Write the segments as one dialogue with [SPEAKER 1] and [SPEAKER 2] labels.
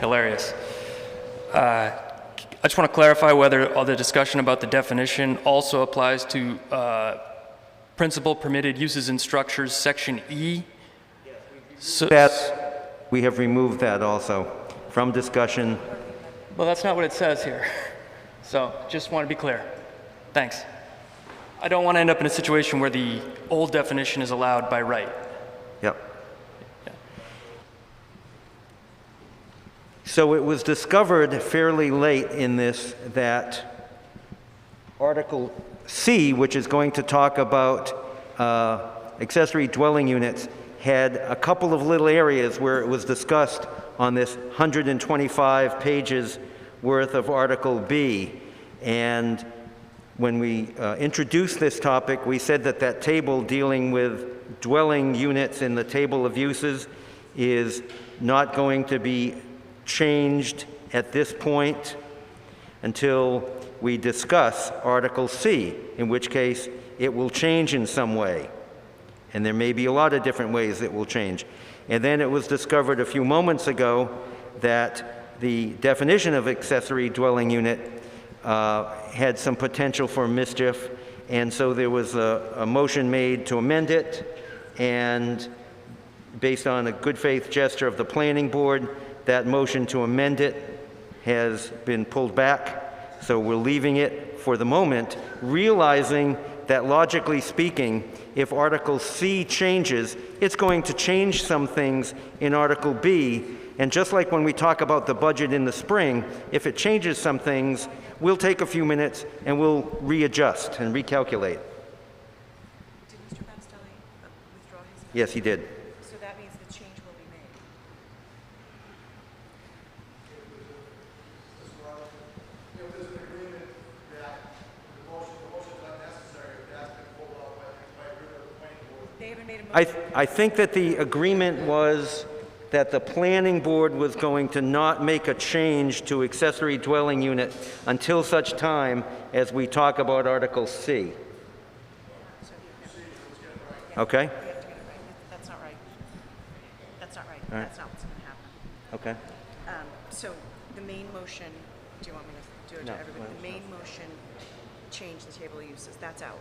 [SPEAKER 1] hilarious. Uh, I just want to clarify whether all the discussion about the definition also applies to uh, principal permitted uses and structures, section E. So-
[SPEAKER 2] That, we have removed that also from discussion.
[SPEAKER 1] Well, that's not what it says here. So just want to be clear. Thanks. I don't want to end up in a situation where the old definition is allowed by right.
[SPEAKER 2] Yep. So it was discovered fairly late in this that Article C, which is going to talk about uh, accessory dwelling units, had a couple of little areas where it was discussed on this 125 pages worth of Article B. And when we uh, introduced this topic, we said that that table dealing with dwelling units in the table of uses is not going to be changed at this point until we discuss Article C, in which case it will change in some way. And there may be a lot of different ways it will change. And then it was discovered a few moments ago that the definition of accessory dwelling unit uh, had some potential for mischief, and so there was a, a motion made to amend it, and based on a good faith gesture of the planning board, that motion to amend it has been pulled back, so we're leaving it for the moment, realizing that logically speaking, if Article C changes, it's going to change some things in Article B. And just like when we talk about the budget in the spring, if it changes some things, we'll take a few minutes and we'll readjust and recalculate.
[SPEAKER 3] Did Mr. Papastelli uh, withdraw his? amendment?
[SPEAKER 2] Yes, he did.
[SPEAKER 3] So that means the change will be made. They haven't made a
[SPEAKER 2] I,
[SPEAKER 3] motion.
[SPEAKER 2] th- I think that the agreement was that the planning board was going to not make a change to accessory dwelling unit until such time as we talk about Article C. Okay,
[SPEAKER 3] We have to get it right. That- That's not right. That's not right.
[SPEAKER 2] right.
[SPEAKER 3] That's not what's going to happen.
[SPEAKER 2] okay.
[SPEAKER 3] Um, So the main motion, do you want me to do it
[SPEAKER 2] No,
[SPEAKER 3] to everybody?
[SPEAKER 2] no,
[SPEAKER 3] The main motion, change the table of uses, that's out.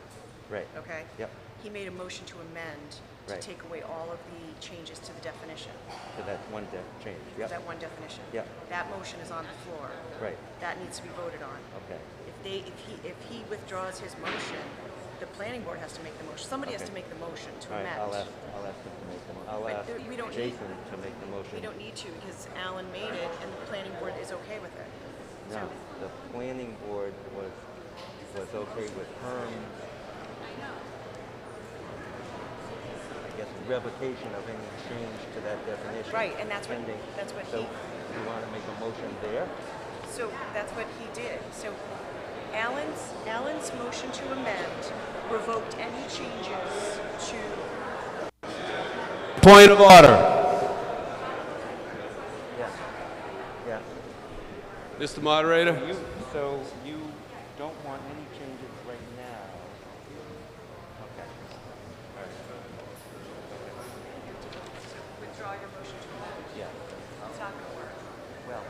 [SPEAKER 2] Right.
[SPEAKER 3] okay?
[SPEAKER 2] Yep.
[SPEAKER 3] He made a motion to amend to
[SPEAKER 2] Right.
[SPEAKER 3] take away all of the changes to the definition,
[SPEAKER 2] So that one de- change,
[SPEAKER 3] to
[SPEAKER 2] yep,
[SPEAKER 3] that one definition.
[SPEAKER 2] Yep.
[SPEAKER 3] That motion is on the floor.
[SPEAKER 2] Right.
[SPEAKER 3] That needs to be voted on.
[SPEAKER 2] okay,
[SPEAKER 3] If they, if he, if he withdraws his motion, the planning board has to make the motion, somebody has to make the motion to
[SPEAKER 2] all right,
[SPEAKER 3] amend.
[SPEAKER 2] I'll ask, I'll ask them to make the, mo- I'll
[SPEAKER 3] But
[SPEAKER 2] ask
[SPEAKER 3] there- we don't need-
[SPEAKER 2] Jason to make the motion.
[SPEAKER 3] We don't need to, because Alan made it, and the planning board is okay with it.
[SPEAKER 2] No,
[SPEAKER 3] So,
[SPEAKER 2] the planning board was, was okay with Herm. I guess revocation of any change to that definition.
[SPEAKER 3] Right, and that's what-
[SPEAKER 2] pending.
[SPEAKER 3] that's what
[SPEAKER 2] So
[SPEAKER 3] he-
[SPEAKER 2] you want to make a motion there?
[SPEAKER 3] so that's what he did. So Alan's, Alan's motion to amend revoked any changes to
[SPEAKER 4] Point of order.
[SPEAKER 2] Yeah. Yeah.
[SPEAKER 4] Mr. Moderator?
[SPEAKER 2] You, so you don't want any changes right now?
[SPEAKER 3] withdraw your motion to amend.
[SPEAKER 2] Yeah.
[SPEAKER 3] It's not going to work.
[SPEAKER 2] Well,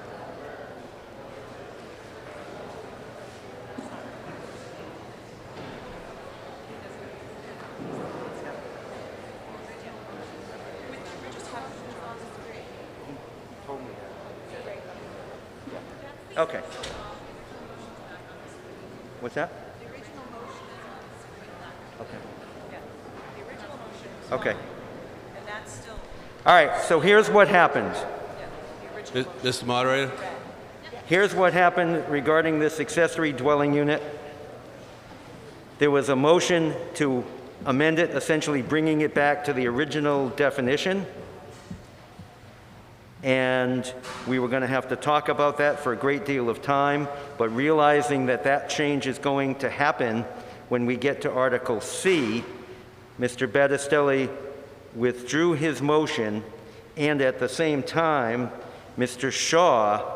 [SPEAKER 2] told me that. Okay. What's that? Okay. Okay.
[SPEAKER 3] And that's still
[SPEAKER 2] All right, so here's what happened.
[SPEAKER 3] the original.
[SPEAKER 4] Mi- Mr. Moderator?
[SPEAKER 2] Here's what happened regarding this accessory dwelling unit. There was a motion to amend it, essentially bringing it back to the original definition. And we were going to have to talk about that for a great deal of time, but realizing that that change is going to happen when we get to Article C, Mr. Battistelli withdrew his motion, and at the same time, Mr. Shaw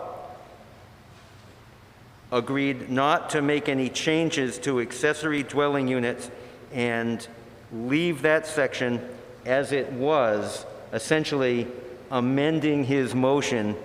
[SPEAKER 2] agreed not to make any changes to accessory dwelling units and leave that section as it was, essentially amending his motion